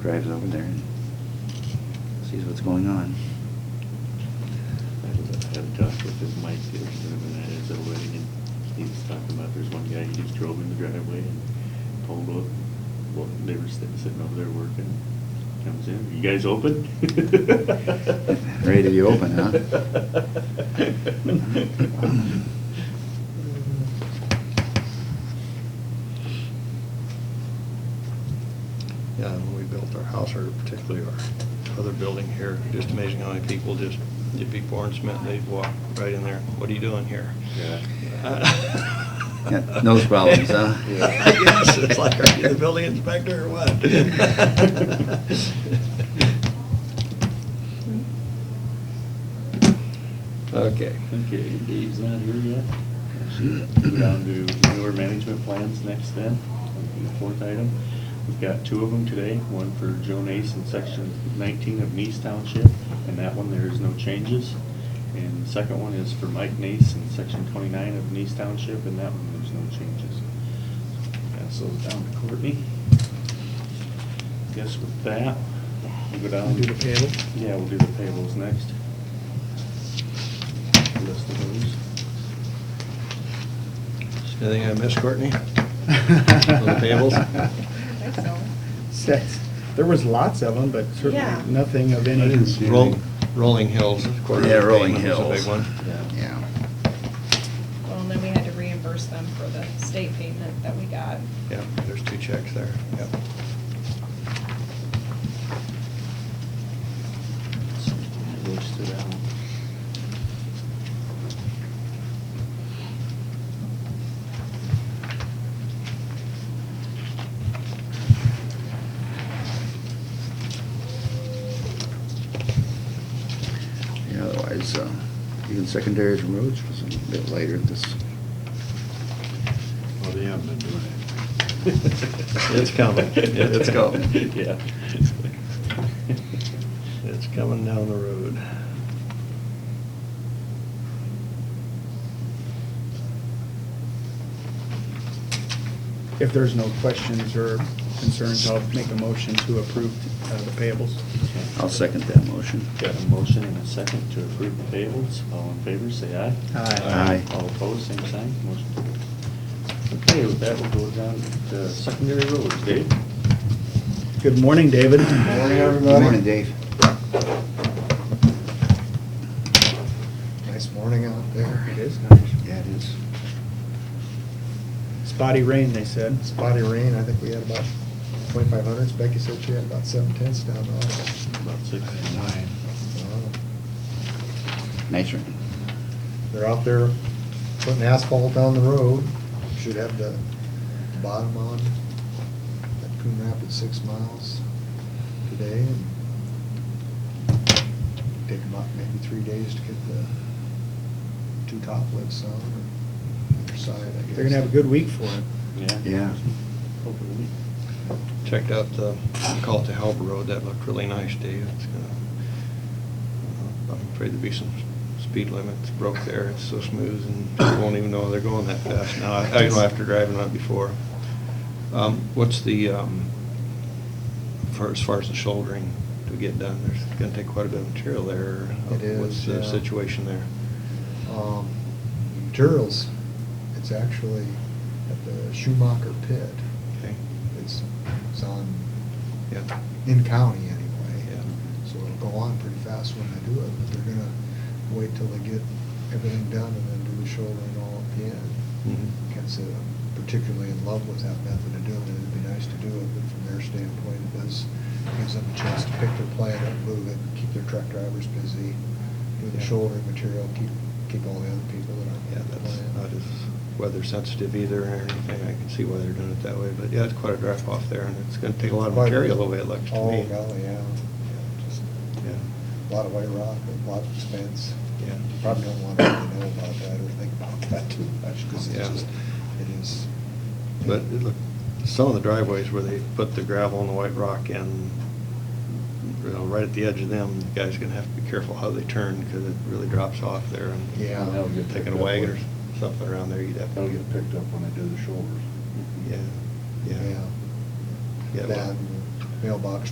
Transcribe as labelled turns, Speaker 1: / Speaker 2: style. Speaker 1: drives over there and sees what's going on.
Speaker 2: I had talked with his Mike the other time, and I had the wedding, and he was talking about, there's one guy, he just drove in the driveway and pulled up. Well, they were sitting, sitting over there working, comes in, you guys open?
Speaker 1: Ready to be open, huh?
Speaker 3: Yeah, and when we built our house, or particularly our other building here, just amazing how many people just, you'd be pouring cement, they'd walk right in there, what are you doing here?
Speaker 2: Yeah.
Speaker 1: Yeah, nose problems, huh?
Speaker 2: Yeah.
Speaker 3: I guess, it's like, are you the building inspector or what? Okay.
Speaker 2: Okay, Dave's not here yet. Go down to newer management plans next then, would be the fourth item. We've got two of them today, one for Joe Nace in section nineteen of Nice Township, and that one, there is no changes. And the second one is for Mike Nace in section twenty-nine of Nice Township, and that one, there's no changes. Pass those down to Courtney. Guess with that, we'll go down.
Speaker 4: Do the payable?
Speaker 2: Yeah, we'll do the payables next. List of those.
Speaker 3: Anything I missed, Courtney? the payables?
Speaker 5: I think so.
Speaker 4: Six. There was lots of them, but
Speaker 5: Yeah.
Speaker 4: certainly nothing of any.
Speaker 1: I didn't see
Speaker 3: Roll-
Speaker 1: anything.
Speaker 3: Rolling Hills, quarterly
Speaker 1: Yeah, Rolling
Speaker 3: payment was a big
Speaker 1: Hills.
Speaker 3: one.
Speaker 1: Yeah.
Speaker 5: Well, and then we had to reimburse them for the state payment that we got.
Speaker 3: Yeah, there's two checks there, yep.
Speaker 2: Goes to that one.
Speaker 1: Yeah, otherwise, uh, even secondaries and roads was a bit later this,
Speaker 6: Well, Oh, they haven't been doing
Speaker 3: It's coming.
Speaker 1: It's coming.
Speaker 2: Yeah.
Speaker 3: It's coming down the road.
Speaker 4: If there's no questions or concerns, I'll make a motion to approve uh, the payables.
Speaker 1: I'll second that motion.
Speaker 2: Got a motion and a second to approve the payables. All in favor, say aye.
Speaker 1: Aye.
Speaker 2: All opposed, same sign. Motion carries. Okay, with that, we'll go down to secondary roads. Dave?
Speaker 4: Good morning, David.
Speaker 6: Morning,
Speaker 1: Good
Speaker 6: everybody.
Speaker 1: morning, Dave.
Speaker 6: it. Nice morning out there.
Speaker 4: It is nice.
Speaker 1: Yeah, it is.
Speaker 4: Spotty rain, they said.
Speaker 6: Spotty rain, I think we had about twenty-five hundreds. Becky said she had about seven tenths down there.
Speaker 2: About six.
Speaker 6: Wow.
Speaker 1: Nice rain.
Speaker 6: They're out there putting asphalt down the road. Should have the bottom on at Coon Rapids, six miles today. and Take about maybe three days to get the two top lifts on or either side, I guess.
Speaker 4: They're gonna have a good week for it.
Speaker 2: Yeah.
Speaker 1: Yeah.
Speaker 2: Hopefully.
Speaker 3: Checked out the, we call it the Halber Road, that looked really nice, Dave. It's gonna, I'm afraid there'd be some speed limits broke there, it's so smooth and you won't even know they're going that fast now. I I know after driving on it before. Um, What's the, um, for, as far as the shouldering to get done, there's gonna take quite a bit of material there.
Speaker 6: It
Speaker 3: What's
Speaker 6: is,
Speaker 3: the
Speaker 6: yeah.
Speaker 3: situation there?
Speaker 6: um, materials. It's actually at the Schumacher Pit.
Speaker 3: Okay,
Speaker 6: It's, it's on,
Speaker 3: yeah,
Speaker 6: in county anyway.
Speaker 3: yeah.
Speaker 6: So it'll go on pretty fast when they do it, but they're gonna wait till they get everything done and then do the shouldering all at the end.
Speaker 3: Mhm.
Speaker 6: Can't say I'm uh, particularly in love with that method of doing it. It'd be nice to do it, but from their standpoint, it does, gives them a chance to pick their plan up, move it, keep their truck drivers busy, do the
Speaker 3: Yeah.
Speaker 6: shouldering material, keep, keep all the other people that aren't
Speaker 3: Yeah,
Speaker 6: in the
Speaker 3: that's
Speaker 6: plan.
Speaker 3: not as weather sensitive either or anything. I can see why they're doing it that way, but yeah, it's quite a drop off there and it's gonna take a lot of
Speaker 6: Quite a-
Speaker 3: material away, it looks to
Speaker 6: Oh,
Speaker 3: me.
Speaker 6: golly, yeah. Yeah, Just
Speaker 3: Yeah,
Speaker 6: A lot of white rock, a lot of expense.
Speaker 3: yeah.
Speaker 6: Probably don't want to really know about that or think about that too much because it's
Speaker 3: Yeah.
Speaker 6: just, it is.
Speaker 3: But it look, some of the driveways where they put the gravel and the white rock in, you know, right at the edge of them, the guy's gonna have to be careful how they turn because it really drops off there. and
Speaker 6: Yeah.
Speaker 2: That'll get
Speaker 3: Taking
Speaker 2: picked
Speaker 3: a
Speaker 2: up
Speaker 3: wagon or
Speaker 2: with-
Speaker 3: something around there, you'd have
Speaker 2: That'll
Speaker 3: to.
Speaker 2: get picked up when Mm-hmm. they do the shoulders.
Speaker 3: Yeah, yeah. Yeah,
Speaker 6: That
Speaker 3: well-
Speaker 6: and mailbox